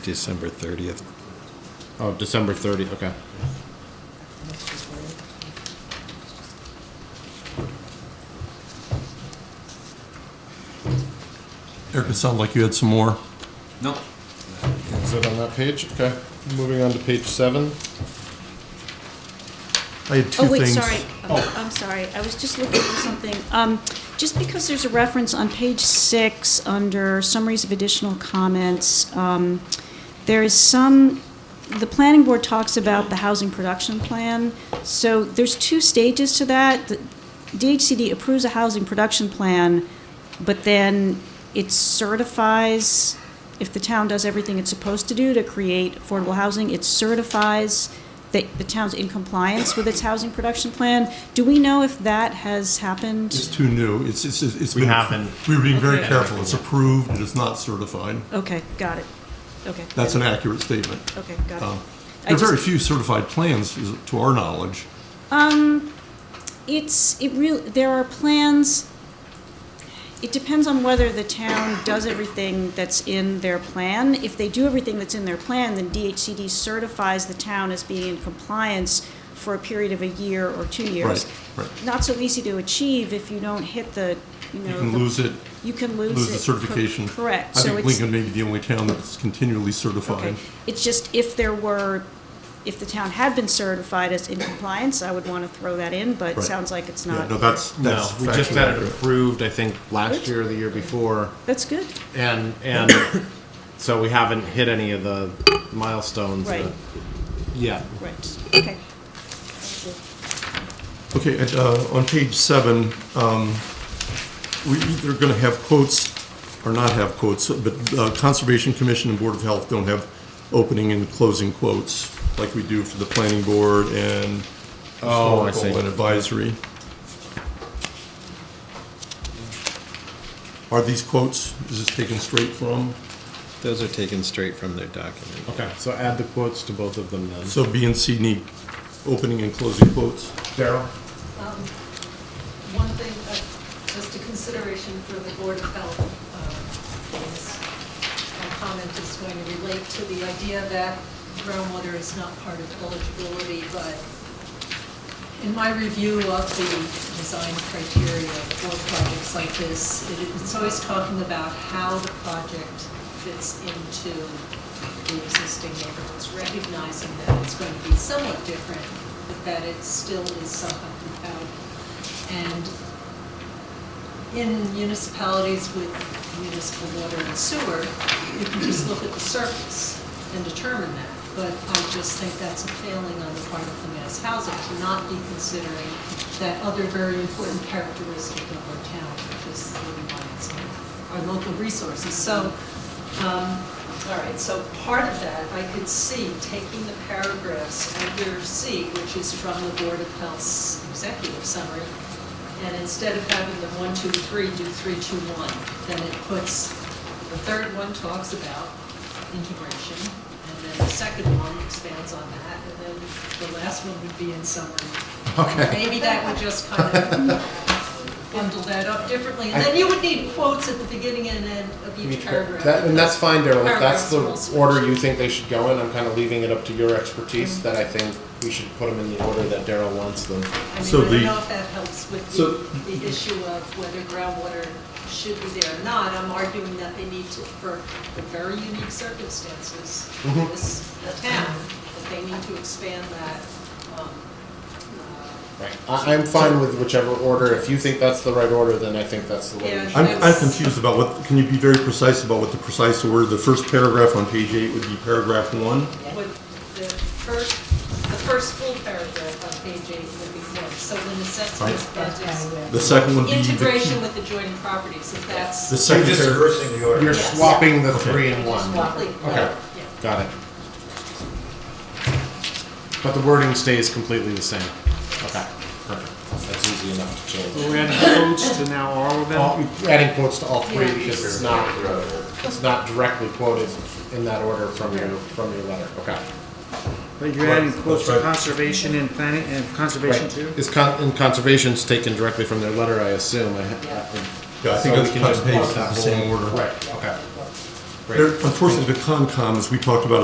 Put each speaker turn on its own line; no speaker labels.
December 30th.
Oh, December 30. Okay.
Eric, it sounded like you had some more.
No.
Is it on that page? Okay. Moving on to page seven.
I had two
Oh, wait,
things.
sorry. Oh, I'm sorry. I was just looking for something. Um, Just because there's a reference on page six, under summaries of additional comments, um, there is some, the planning board talks about the housing production plan. So there's two stages to that. The DHCD approves a housing production plan, but then it certifies, if the town does everything it's supposed to do to create affordable housing, it certifies that the town's in compliance with its housing production plan. Do we know if that has
It's
happened?
too new. It's, it's, it's.
We
been-
haven't-
We're being very
Okay.
careful. It's approved. It is not certified.
Okay, got it. Okay.
That's an accurate statement.
Okay, got
Um,
it.
There
I
are very
just,
few certified plans, is- to our knowledge.
it's, it real, there are plans, it depends on whether the town does everything that's in their plan. If they do everything that's in their plan, then DHCD certifies the town as being in compliance for a period of a year or two years.
Right, right.
Not so easy to achieve if you don't hit the, you know.
You can
the-
lose it,
You can lose it.
lose the
Cor-
certification.
Correct.
I
So
think
it's-
Lincoln may be the only town that's continually
Okay.
certified.
It's just if there were, if the town had been certified as in compliance, I would want to throw that in, but it
Right.
sounds like it's
Yeah, no,
not.
that's,
No,
that's.
we just
factually
had it
accurate.
approved. I think last year or the year before,
That's good.
and and so we haven't hit any of the milestones.
Right.
that- Yeah.
Right. Okay.
Okay, at, uh, on page seven, um, we either gonna have quotes or not have quotes, but uh, Conservation Commission and Board of Health don't have opening and closing quotes like we do for the planning board and
Oh, I see.
historical and advisory. Are these quotes, is this taken straight from?
Those are taken straight from their document.
Okay. So add the quotes to both of them then.
So B and C need opening and closing quotes?
Daryl.
One thing, uh, just a consideration for the Board of Health, uh, is, my comment is going to relate to the idea that groundwater is not part of eligibility, but in my review of the design criteria for projects like this, it- it's always talking about how the project fits into the existing neighborhoods, recognizing that it's going to be somewhat different, but that it still is somehow compatible. And in municipalities with municipal water and sewer, you can just look at the surface and determine that. But I just think that's a failing on the part of the mass housing to not be considering that other very important characteristic of our town, which is the water rights, our local resources. So um, All right, so part of that, I could see taking the paragraphs under C, which is from the Board of Health's executive summary, and instead of having the one, two, three, do three, two, one, then it puts, the third one talks about integration, and then the second one expands on that, and then the last one would be in summary. Okay. Maybe that would just kind of bundle that up differently, and then you would need quotes at the beginning and end of each paragraph.
That, and that's fine, Daryl. If that's
Paragraphs
the
are all switched.
order you think they should go in, I'm kind of leaving it up to your expertise.
Mm-hmm.
That I think we should put them in the order that Daryl wants them.
I mean, I
So
don't
the-
know if that helps with
So-
the, the issue of whether groundwater should be there or not. I'm arguing that they need to, for the very unique circumstances of
Mm-hmm.
this town, that they need to expand that, um, uh,
Right. I, I'm fine with whichever order. If you think that's the right order, then I think that's the way.
Yeah.
we should.
I'm, I'm confused about what, can you be very precise about what the precise order, the first paragraph on page eight would be paragraph one?
what the first, the first full paragraph on page eight would be one. So the necessity of projects,
The second would be. the-
integration with adjoining properties, if that's.
The second
You're just-
paragraph,
You're
Yes.
swapping the
Okay.
three and one.
Complete.
Okay.
Yeah.
Got it. But the wording stays completely the same. Okay, perfect. That's easy enough to change.
So we're adding quotes to now all of them?
All- Adding quotes to all three
Yeah.
because it's not, it's not directly quoted in that order from your, from your letter. Okay.
But you're adding quotes to conservation and planning, and conservation
Right.
too?
Is con, and conservation's taken directly from their letter, I assume. I ha- I-
Yeah, I think
so
that's
we can
cut
just put
and paste in the
that
same
whole-
order.
Right, okay.
There- Unfortunately, the Concom, as we talked about